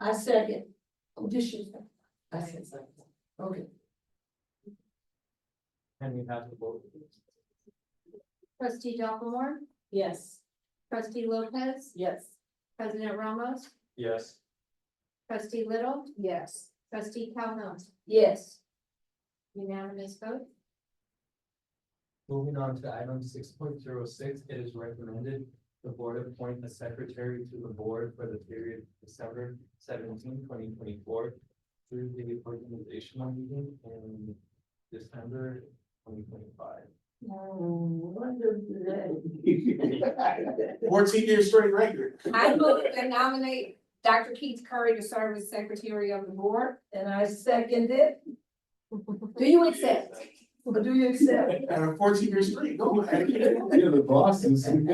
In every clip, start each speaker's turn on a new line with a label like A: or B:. A: I Oh, second. Audition.
B: I said so.
A: Okay.
C: And you have the vote.
D: Trustee Dopplemore,
B: Yes.
D: trustee Lopez,
B: Yes.
D: president Ramos,
C: Yes.
D: trustee Little,
B: Yes.
D: trustee Calhoun,
A: Yes.
D: unanimous vote.
C: Moving on to item six point zero six, it is recommended the board appoint a secretary to the board for the period December 17, 2024 through the organizational meeting in December twenty twenty-five.
E: Fourteen year straight record.
D: I move to nominate Dr. Keith Curry to serve as secretary of the board.
A: And I second it. Do you accept? Or do you accept?
E: And a fourteen year streak, go ahead.
F: You're the bosses.
D: Motion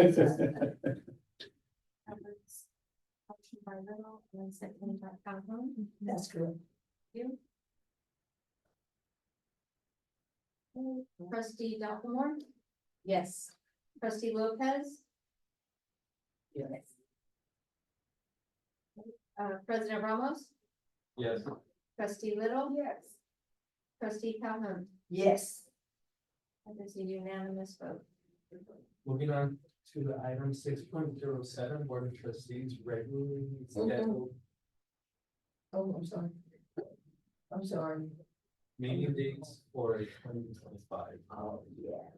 D: by Little and second by Calhoun.
A: That's correct.
D: Trustee Dopplemore,
B: Yes.
D: trustee Lopez,
B: Yes.
D: uh, president Ramos,
C: Yes.
D: trustee Little,
B: Oh, Yes.
D: trustee Calhoun.
B: Yes.
D: That is a unanimous vote.
C: Moving on to item six point zero seven, Board of Trustees regularly scheduled
A: Oh, I'm sorry. I'm sorry.
C: meeting dates for twenty twenty-five.
A: Oh, yeah.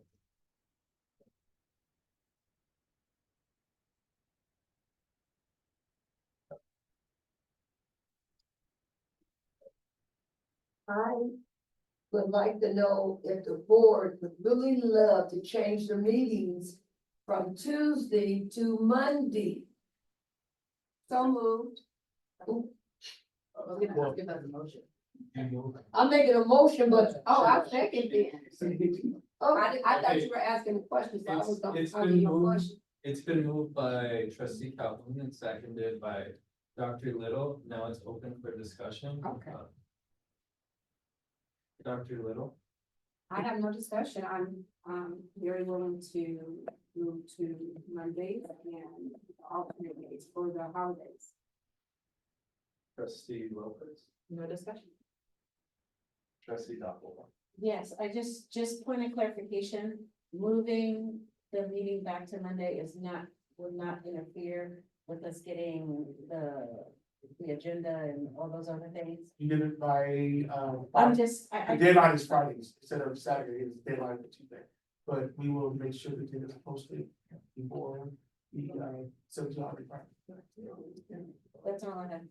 A: I would like to know if the board would really love to change the meetings from Tuesday to Monday.
D: So moved.
C: Well-
B: Give us a motion.
A: I'm making a motion, but,
D: Oh, I second it.
A: oh, I, I thought you were asking questions, so I was
C: It's-
A: gonna
C: it's
A: ask
C: been
A: you a
C: moved.
A: question.
C: It's been moved by trustee Calhoun and seconded by Dr. Little. Now it's open for discussion.
D: Okay.
C: Uh, Dr. Little,
D: I have no discussion. I'm, um, very willing to move to Mondays and alternate days for the holidays.
C: trustee Lopez,
B: No discussion.
C: trustee Dopplemore.
B: Yes, I just, just point of clarification, moving the meeting back to Monday is not, will not interfere with us getting the, the agenda and all those other things.
E: You did it by,
B: I'm
E: um,
B: just, I,
E: the
B: I,
E: deadline is Fridays instead of Saturday, it's deadline for Tuesday. But we will make sure that it is posted before the, uh, seven to
B: that's all I have.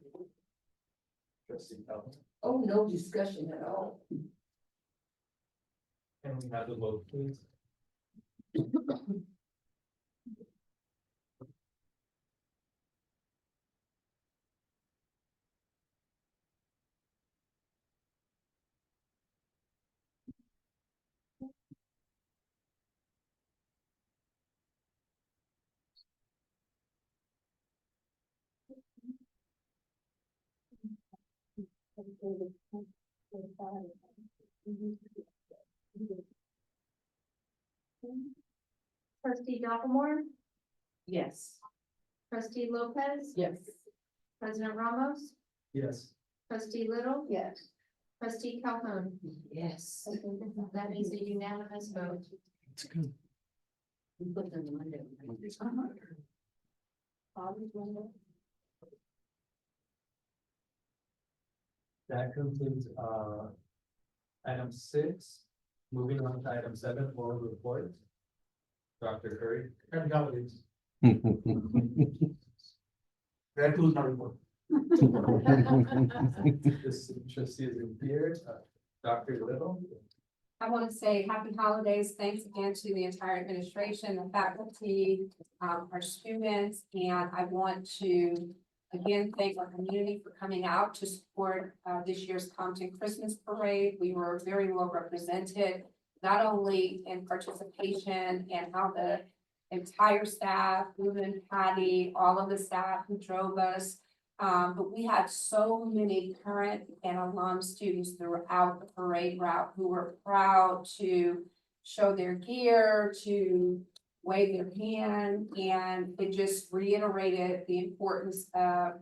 C: Trustee Calhoun,
A: Oh, no discussion at all.
C: can we have the vote, please?
D: Trustee Dopplemore,
B: Yes.
D: trustee Lopez,
B: Yes.
D: president Ramos,
C: Yes.
D: trustee Little. Yes. Trustee Calhoun.
B: Yes.
D: That is a unanimous vote.
B: We put them on Monday. Always Monday.
C: That concludes, uh, item six. Moving on to item seven, oral report. Dr. Curry,
E: And governance, that includes my report.
C: this trustee is in here, Uh, Dr. Little.
D: I want to say happy holidays. Thanks again to the entire administration, the faculty, um, our students. And I want to again thank our community for coming out to support, uh, this year's Compton Christmas Parade. We were very well represented, not only in participation and how the entire staff, Lou and Patty, all of the staff who drove us, um, but we had so many current and alum students throughout the parade route who were proud to show their gear, to wave their hand, and it just reiterated the importance of